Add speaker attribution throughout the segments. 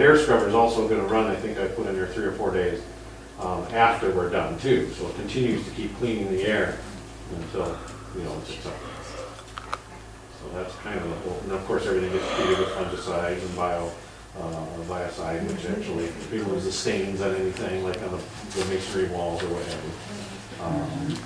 Speaker 1: Air scrubber is also gonna run, I think I put in there three or four days um, after we're done too, so it continues to keep cleaning the air until, you know, it's acceptable. So that's kind of the whole, and of course, everything gets treated with fungicides and bio, uh, or biocide, which
Speaker 2: Mm-hmm.
Speaker 1: actually removes the stains on anything, like on the the masonry walls or whatever. Um,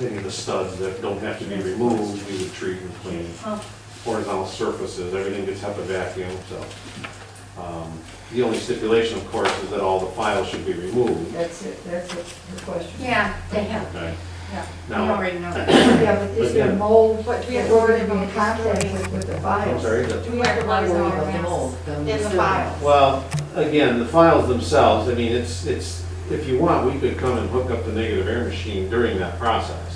Speaker 1: Any of the studs that don't have to be removed, we would treat and clean.
Speaker 2: Oh.
Speaker 1: Horizontal surfaces, everything gets HEPA vacuum, so. um, The only stipulation, of course, is that all the files should be removed.
Speaker 3: That's it, that's it, the question.
Speaker 2: Yeah, they have,
Speaker 1: Okay.
Speaker 2: yeah. We
Speaker 1: Now-
Speaker 2: already know that.
Speaker 3: Yeah, but is there
Speaker 1: Again.
Speaker 3: mold, what,
Speaker 4: We have
Speaker 3: we're gonna
Speaker 4: to
Speaker 3: be in contact with, with the
Speaker 1: I'm
Speaker 3: files?
Speaker 1: sorry, the-
Speaker 4: We have to buy
Speaker 3: Worry
Speaker 4: some
Speaker 3: about the
Speaker 4: masks
Speaker 3: mold, then
Speaker 4: in
Speaker 3: we
Speaker 4: the
Speaker 3: still-
Speaker 4: files.
Speaker 1: Well, again, the files themselves, I mean, it's, it's, if you want, we could come and hook up the negative air machine during that process.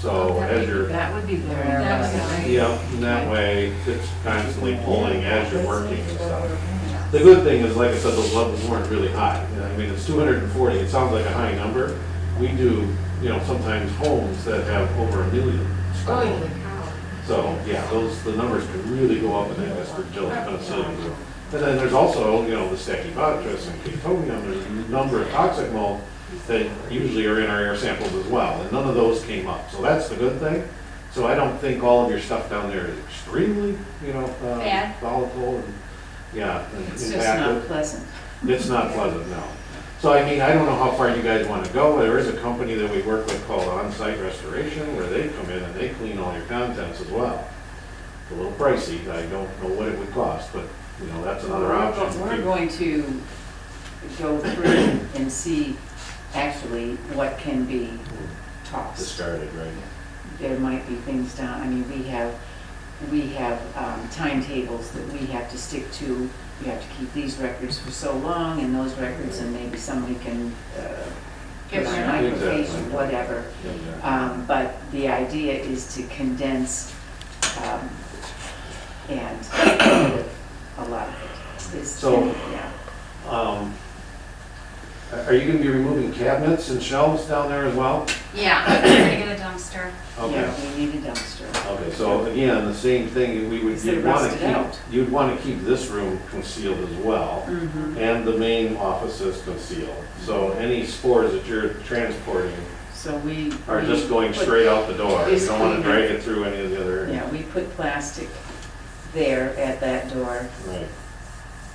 Speaker 1: So as you're,
Speaker 5: Oh, That would be good.
Speaker 3: That would be
Speaker 5: That would
Speaker 1: yeah, in that way, it's constantly pulling as you're working and stuff. The good thing is, like I said, those levels weren't really high. You know, I mean, it's two hundred and forty, it sounds like a high number. We do, you know, sometimes homes that have over a million.
Speaker 4: Holy
Speaker 1: So, yeah, those, the numbers could really go up in that Westford Village, Minnesota. And then there's also, you know, the Stachybotrys and Ketonium, there's a number of toxic mold that usually are in our air samples as well, and none of those came up, so that's the good thing. So I don't think all of your stuff down there is extremely, you know, uh,
Speaker 2: Bad.
Speaker 1: volatile and, yeah, and
Speaker 5: It's just not
Speaker 1: impacted.
Speaker 5: pleasant.
Speaker 1: It's not pleasant, no. So I mean, I don't know how far you guys want to go, there is a company that we work with called Onsite Restoration, where they come in and they clean all your contents as well. It's a little pricey, I don't know what it would cost, but, you know, that's another option.
Speaker 5: We're going to go through and see actually what can be tossed.
Speaker 1: Discarded, right?
Speaker 5: There might be things down, I mean, we have, we have um, timetables that we have to stick to. We have to keep these records for so long and those records, and maybe somebody can uh, give them an
Speaker 1: Exactly.
Speaker 5: microfiche, whatever.
Speaker 1: Yeah, yeah.
Speaker 5: Um, But the idea is to condense um, and a lot of it is,
Speaker 1: So-
Speaker 5: yeah.
Speaker 1: Um, Are are you gonna be removing cabinets and shelves down there as well?
Speaker 2: Yeah, I'm gonna get a dumpster.
Speaker 1: Okay,
Speaker 5: Yeah, we need a dumpster.
Speaker 1: okay, so again, the same thing, we would,
Speaker 5: Instead of
Speaker 1: you'd wanna
Speaker 5: rusted out.
Speaker 1: keep, you'd wanna keep this room concealed as well,
Speaker 2: Mm-hmm.
Speaker 5: Mhm.
Speaker 1: and the main offices concealed. So any spores that you're transporting
Speaker 5: So we.
Speaker 1: are
Speaker 5: we
Speaker 1: just going
Speaker 5: put-
Speaker 1: straight out the door. You
Speaker 5: It's
Speaker 1: don't wanna
Speaker 5: clean.
Speaker 1: drag it through any of the other,
Speaker 5: Yeah, we put plastic there at that door
Speaker 1: right,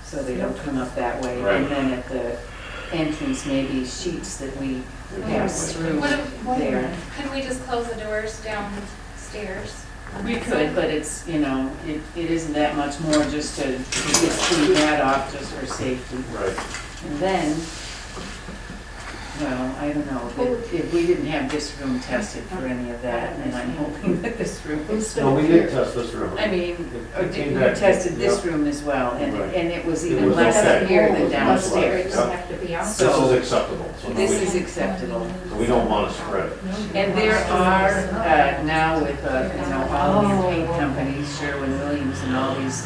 Speaker 5: so they don't come up that way.
Speaker 1: Right.
Speaker 5: And then at the entrance, maybe sheets that we pass through
Speaker 2: What if-
Speaker 5: there.
Speaker 2: Couldn't we just close the doors downstairs?
Speaker 5: We could, but it's, you know, it, it isn't that much more just to, to just clean that off just for safety.
Speaker 1: right.
Speaker 5: And then, well, I don't know, if, if we didn't have this room tested for any of that, and I'm hoping that this room is
Speaker 1: No,
Speaker 5: still
Speaker 1: we did
Speaker 5: here.
Speaker 1: test this room.
Speaker 5: I mean, or
Speaker 1: It came
Speaker 5: did, we
Speaker 1: back-
Speaker 5: tested this
Speaker 1: Yep.
Speaker 5: room as well, and,
Speaker 1: Right.
Speaker 5: and it was
Speaker 1: It
Speaker 5: even
Speaker 1: was
Speaker 5: less
Speaker 1: okay.
Speaker 5: here than
Speaker 1: It was less.
Speaker 5: downstairs.
Speaker 4: Upstairs have to be out.
Speaker 1: This is
Speaker 5: So-
Speaker 1: acceptable, so no,
Speaker 5: This is
Speaker 1: we-
Speaker 5: acceptable.
Speaker 1: so we don't wanna spread it.
Speaker 5: And there are, uh, now with, uh, you know, all these paint companies, Sherwin-Williams and all these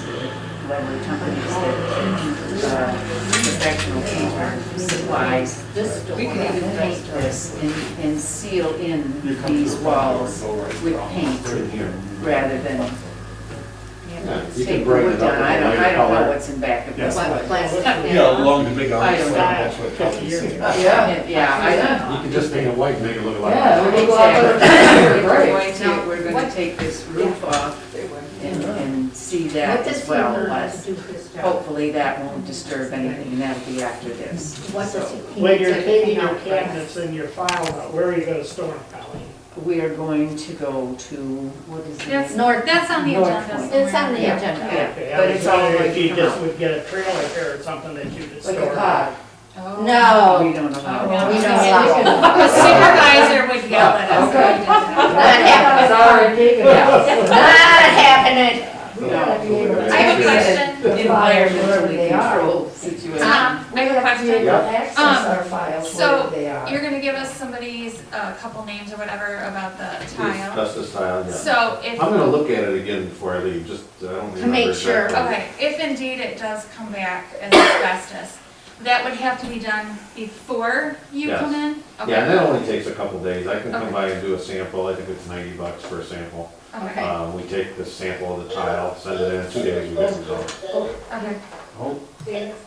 Speaker 5: leather companies that, uh, professional painter supplies,
Speaker 4: This door.
Speaker 5: We could even paint this and, and seal in these walls with paint
Speaker 1: Right here.
Speaker 5: rather than
Speaker 1: Yeah, You can
Speaker 5: take
Speaker 1: bring
Speaker 5: wood
Speaker 1: it up.
Speaker 5: down.
Speaker 1: with
Speaker 5: I don't,
Speaker 1: lighter
Speaker 5: I don't know
Speaker 1: color.
Speaker 5: what's in back of this
Speaker 4: What,
Speaker 5: one.
Speaker 4: plastic?
Speaker 6: Yeah, along the big
Speaker 5: I
Speaker 6: arms.
Speaker 5: don't
Speaker 6: that's what copies.
Speaker 5: Yeah, yeah,
Speaker 1: You can just paint it white, and make it look like.
Speaker 3: Yeah,
Speaker 5: I
Speaker 3: we
Speaker 5: don't.
Speaker 3: go out there,
Speaker 5: Exactly.
Speaker 3: we're
Speaker 5: We're
Speaker 3: great.
Speaker 5: going to, we're gonna take this roof off and, and see
Speaker 4: What
Speaker 5: that
Speaker 4: does
Speaker 5: as
Speaker 4: he
Speaker 5: well
Speaker 4: learn how to
Speaker 5: as, oh,
Speaker 4: do his job?
Speaker 5: hopefully that won't disturb anything and that'll be after this.
Speaker 4: What does he? he
Speaker 7: When you're
Speaker 4: needs to
Speaker 7: taking
Speaker 4: hang
Speaker 7: your
Speaker 4: out
Speaker 7: cabinets and your file out, where are you gonna store them, Colleen?
Speaker 5: We are going to go to, what is it?
Speaker 2: That's, that's on the
Speaker 5: North
Speaker 2: agenda
Speaker 5: Point.
Speaker 2: somewhere.
Speaker 4: It's on the agenda.
Speaker 5: Yeah,
Speaker 7: Okay,
Speaker 5: but
Speaker 7: I was
Speaker 5: it's all
Speaker 7: wondering if
Speaker 5: going
Speaker 7: you
Speaker 5: to
Speaker 7: just
Speaker 5: come
Speaker 7: would get a trailer here or something that you could
Speaker 5: Like
Speaker 7: store.
Speaker 5: a pod.
Speaker 2: Oh.
Speaker 4: No,
Speaker 5: We don't allow.
Speaker 2: No,
Speaker 4: we
Speaker 2: we
Speaker 4: don't
Speaker 2: can't
Speaker 4: allow.
Speaker 2: The supervisor would yell at us. if we did
Speaker 4: not
Speaker 2: that.
Speaker 4: happening.
Speaker 3: Sorry, taken out.
Speaker 4: Not happening.
Speaker 3: We gotta be able to-
Speaker 2: I have a question.
Speaker 3: The files, wherever
Speaker 5: Environmentally
Speaker 3: they are.
Speaker 5: controlled situation.
Speaker 4: Ah.
Speaker 2: Um, I
Speaker 3: We
Speaker 2: have a
Speaker 3: have to be able
Speaker 2: question.
Speaker 3: to
Speaker 1: Yeah.
Speaker 3: access
Speaker 2: Um,
Speaker 3: our files
Speaker 2: so
Speaker 3: wherever they are.
Speaker 2: You're gonna give us somebody's, uh, couple names or whatever about the tile.
Speaker 1: That's the style, uh, yeah.
Speaker 2: So if.
Speaker 1: I'm gonna look at it again before I leave, just, uh, I don't remember.
Speaker 4: To make sure.
Speaker 1: exactly.
Speaker 2: Okay, if indeed it does come back as asbestos, that would have to be done before you
Speaker 1: Yes.
Speaker 2: come in? Okay.
Speaker 1: Yeah, and that only takes a couple days, I can come
Speaker 2: Okay.
Speaker 1: by and do a sample, I think it's ninety bucks for a sample.
Speaker 2: Okay,
Speaker 1: Um, we take the sample of the tile, send it in, two days, we get the result.
Speaker 2: okay.
Speaker 3: They-